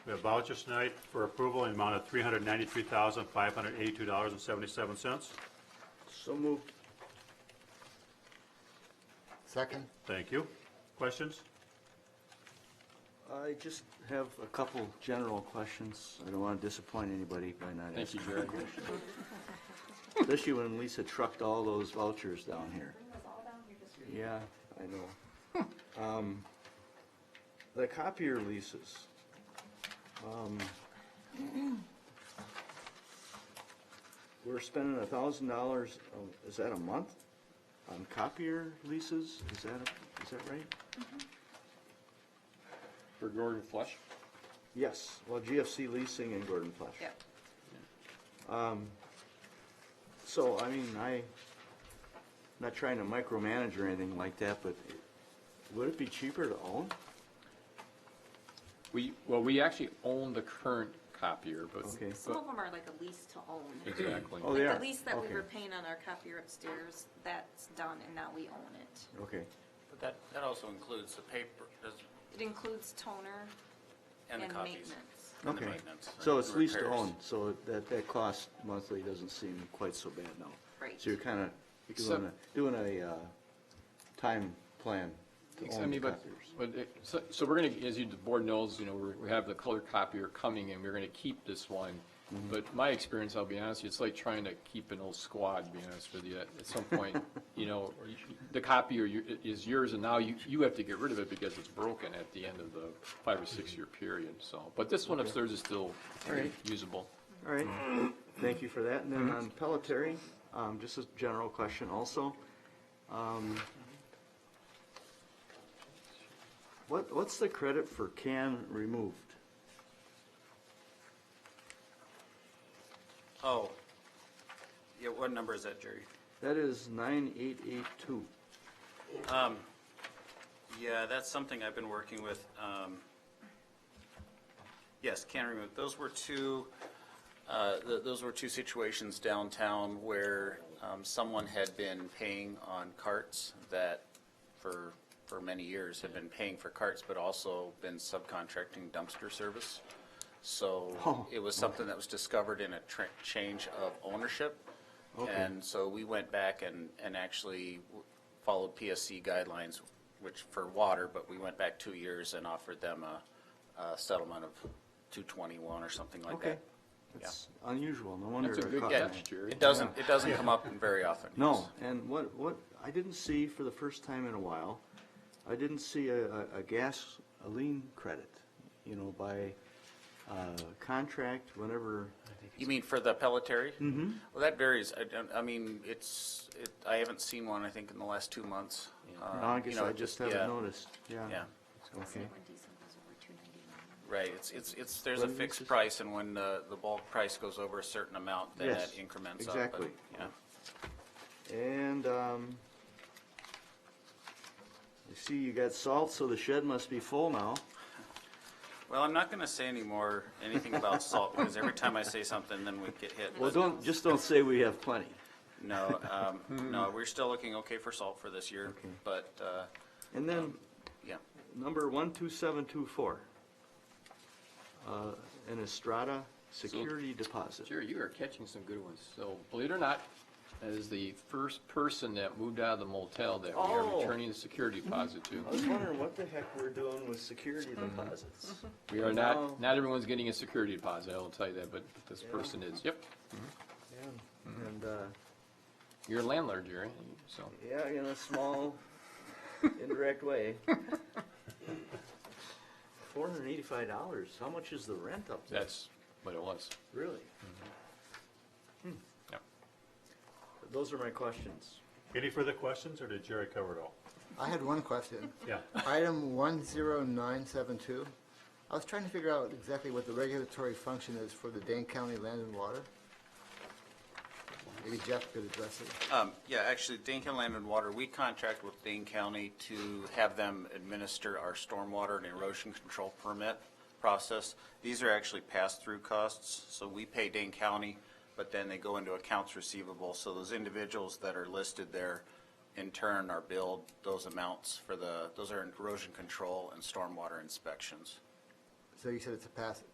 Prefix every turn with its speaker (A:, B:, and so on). A: We have vouchers tonight for approval in the amount of $393,582.77.
B: So moved.
C: Second?
A: Thank you. Questions?
B: I just have a couple general questions. I don't want to disappoint anybody by not
D: Thank you,
B: asking.
D: Jerry.
B: Especially when Lisa trucked all those vouchers down here. Yeah, I know. Um, The copier leases. um, We're spending a thousand dollars, oh, is that a month, on copier leases? Is that, is that right?
D: For Gordon Flush?
B: Yes, well, GFC Leasing and Gordon Flesh.
E: Yeah.
B: So, I mean, I, not trying to micromanage or anything like that, but would it be cheaper to own?
D: We, well, we actually own the current copier, but.
B: Okay.
E: Some of them are like a lease to own.
D: Exactly.
B: Oh, they
E: Like
B: are?
E: the lease that we
B: Okay.
E: were paying on our copier upstairs, that's done and now we own it.
B: Okay,
F: But that, that also includes the paper, does-
E: It includes toner
F: and
E: and
F: the copies.
E: maintenance.
F: And the
B: okay.
F: maintenance
B: So
F: and
B: it's leased to
F: repairs.
B: own, so that, that cost monthly doesn't seem quite so bad now.
E: Right.
B: So you're kind of doing a, doing a, uh, time plan to
D: I
B: own the
D: mean, but,
B: copiers.
D: but, it- so, so we're gonna, as you, the board knows, you know, we're- we have the color copier coming and we're gonna keep this one.
B: Mm-hmm.
D: But my experience, I'll be honest, it's like trying to keep an old squad, to be honest with you. At at some point, you know, you- the copier you- is yours and now you, you have to get rid of it because it's broken at the end of the five or six-year period, so. But this one upstairs is still
B: Mm-hmm. right.
D: usable.
B: All right, thank you for that. And then on Pelletary, um, just a general question also. Um, What, what's the credit for can removed?
F: Oh. Yeah, what number is that, Jerry?
B: That is nine eight eight two.
F: Yeah, that's something I've been working with. um, Yes, can remove. Those were two, uh, th- those were two situations downtown where um, someone had been paying on carts that for, for many years had been paying for carts, but also been subcontracting dumpster service. So
B: Oh,
F: it was something that was discovered in a tr- change of ownership. And so we went back and, and actually w- followed PSC guidelines, which for water, but we went back two years and offered them a, a settlement of two twenty-one or something like
B: Okay,
F: that.
B: that's unusual, no wonder.
D: That's a
B: it
D: good
B: caught
F: Yeah,
B: my-
D: catch, Jerry.
F: it doesn't, it doesn't come up very often.
B: No,
F: yes.
B: and what, what, I didn't see for the first time in a while, I didn't see a, a- a gas, a lien credit, you know, by uh, contract, whenever,
F: You mean for the Pelletary? Mm-hmm. Well, that varies. I don't, I mean, it's, it, I haven't seen one, I think, in the last two months. Um,
B: I
F: you
B: guess
F: know,
B: I
F: it
B: just
F: yeah,
B: haven't noticed, yeah.
F: Yeah,
B: Okay,
E: When diesel goes over 299.
F: right. It's, it's, it's, there's a
B: What is
F: fixed
B: this?
F: price and when the, the bulk price goes over a certain amount, then
B: Yes,
F: that increments up. but,
B: exactly.
F: Yeah.
B: and, um, I see you got salt, so the shed must be full now.
F: Well, I'm not going to say anymore, anything about salt, because every time I say something, then we get hit.
B: Well,
F: but
B: don't, just don't say we have plenty.
F: No, um, no, we're still looking okay for salt for this year,
B: Okay.
F: but, uh,
B: And then,
F: yeah.
B: number one two seven two four. Uh, An Estrada security deposit.
D: Jerry, you are catching some good ones. So, believe it or not, that is the first person that moved out of the motel that we are
B: Oh.
D: returning the security deposit to.
B: I was wondering what the heck we're doing with security deposits.
D: We are
B: Wow.
D: not, not everyone's getting a security deposit, I will tell you that, but this person is. Yep,
F: Mm-hmm.
B: Yeah, And, uh,
D: you're a landlord, Jerry, so.
B: yeah, in a small, indirect way. Four hundred and eighty-five dollars, how much is the rent up there?
D: That's what it was.
B: Really? Hmm.
D: Yeah.
B: Those are my questions.
A: Any further questions, or did Jerry cover it all?
C: I had one question.
A: Yeah.
C: Item 10972, I was trying to figure out exactly what the regulatory function is for the Dane County Land and Water. Maybe Jeff could address it.
F: Um, yeah, actually, Dane County Land and Water, we contract with Dane County to have them administer our stormwater and erosion control permit process. These are actually pass-through costs, so we pay Dane County, but then they go into accounts receivable. So those individuals that are listed there, in turn, are billed those amounts for the, those are erosion control and stormwater inspections.
C: So you said it's a pass,